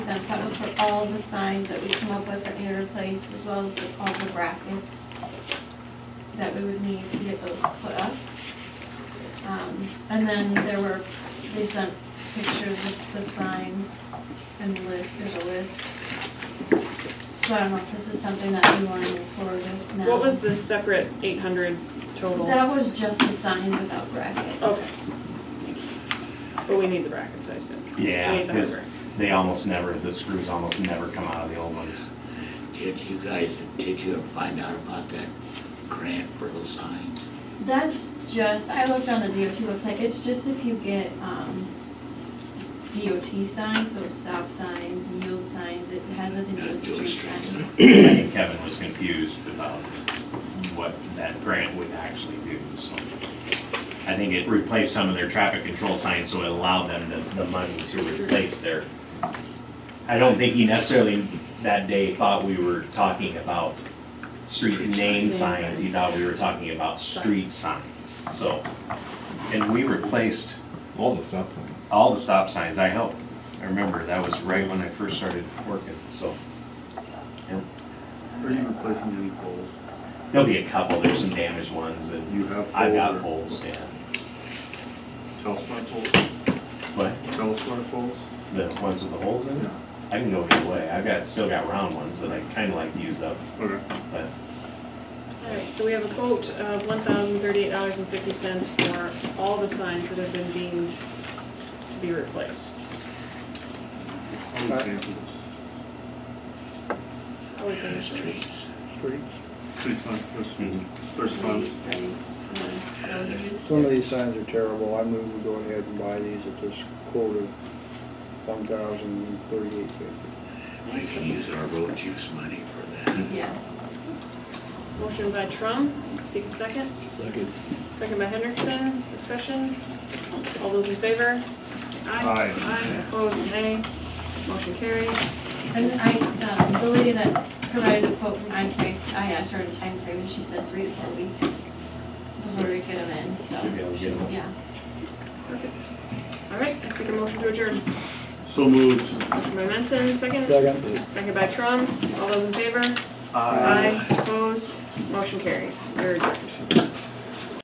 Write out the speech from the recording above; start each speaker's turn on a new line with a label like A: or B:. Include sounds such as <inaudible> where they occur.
A: cents. That was for all the signs that we come up with that need replaced, as well as the- all the brackets that we would need to get those put up. Um, and then there were, they sent pictures of the signs and the list, there's a list. So I don't know if this is something that we wanna move forward with now.
B: What was the separate eight hundred total?
A: That was just the signs without brackets.
B: Okay. But we need the brackets, I said. We
C: Yeah,
B: need the hard
C: because
B: bracket.
C: they almost never, the screws almost never come out of the old <clears throat> ones.
D: Did you guys, did you find out about that grant for those signs?
A: That's just, I looked on the DOT website, it's just if you get, um, DOT signs, so stop signs, yield signs, it has nothing to do
D: Not doing
A: with street
D: streets,
A: signs.
D: no.
C: I think Kevin was confused about what that grant would actually do, so. I think it replaced some of their traffic control signs, so it allowed them the, the money to replace their. I don't think he necessarily that day thought we were talking about street name signs, he thought we were talking about street signs, so. And we replaced
E: All the stuff. then.
C: all the stop signs, I helped. I remember, that was right when I first started working, so.
F: Are you replacing any poles?
C: There'll be a couple, there's some damaged ones and
F: You have
C: I've got
F: poles
C: poles, yeah.
F: Telesmart poles?
C: But
F: Telesmart poles?
C: the ones with the holes in
F: Yeah.
C: it, I can go either way. I've got, still got round ones that I kinda like to use up,
F: Okay.
C: but
B: All right, so we have a quote of one thousand thirty-eight dollars and fifty cents for all the signs that have been deemed to be replaced.
F: Who paying for this?
B: How we
D: The
B: finish it?
D: streets.
F: Streets fund, there's,
C: Mhm.
F: there's funds.
G: Some of these signs are terrible. I move we go ahead and buy these at this quote of one thousand thirty-eight fifty.
D: We can use our road use money for that.
A: Yeah.
B: Motion by Trump, seek a second.
F: Second.
B: Second by Hendrickson, discussion. All those in favor?
F: Aye.
B: Aye, opposed, nay. Motion carries.
A: And I, um, the lady that provided the quote from iTrace, I asked her a time frame, and she said three to four weeks before we get them in,
C: should be
A: so,
C: able to get them.
A: yeah.
B: Perfect. All right, I seek a motion to adjourn.
F: So moved.
B: Motion by Menson, second.
G: Second?
B: Second by Trump. All those in favor? Aye. Opposed? Motion carries. We're adjourned.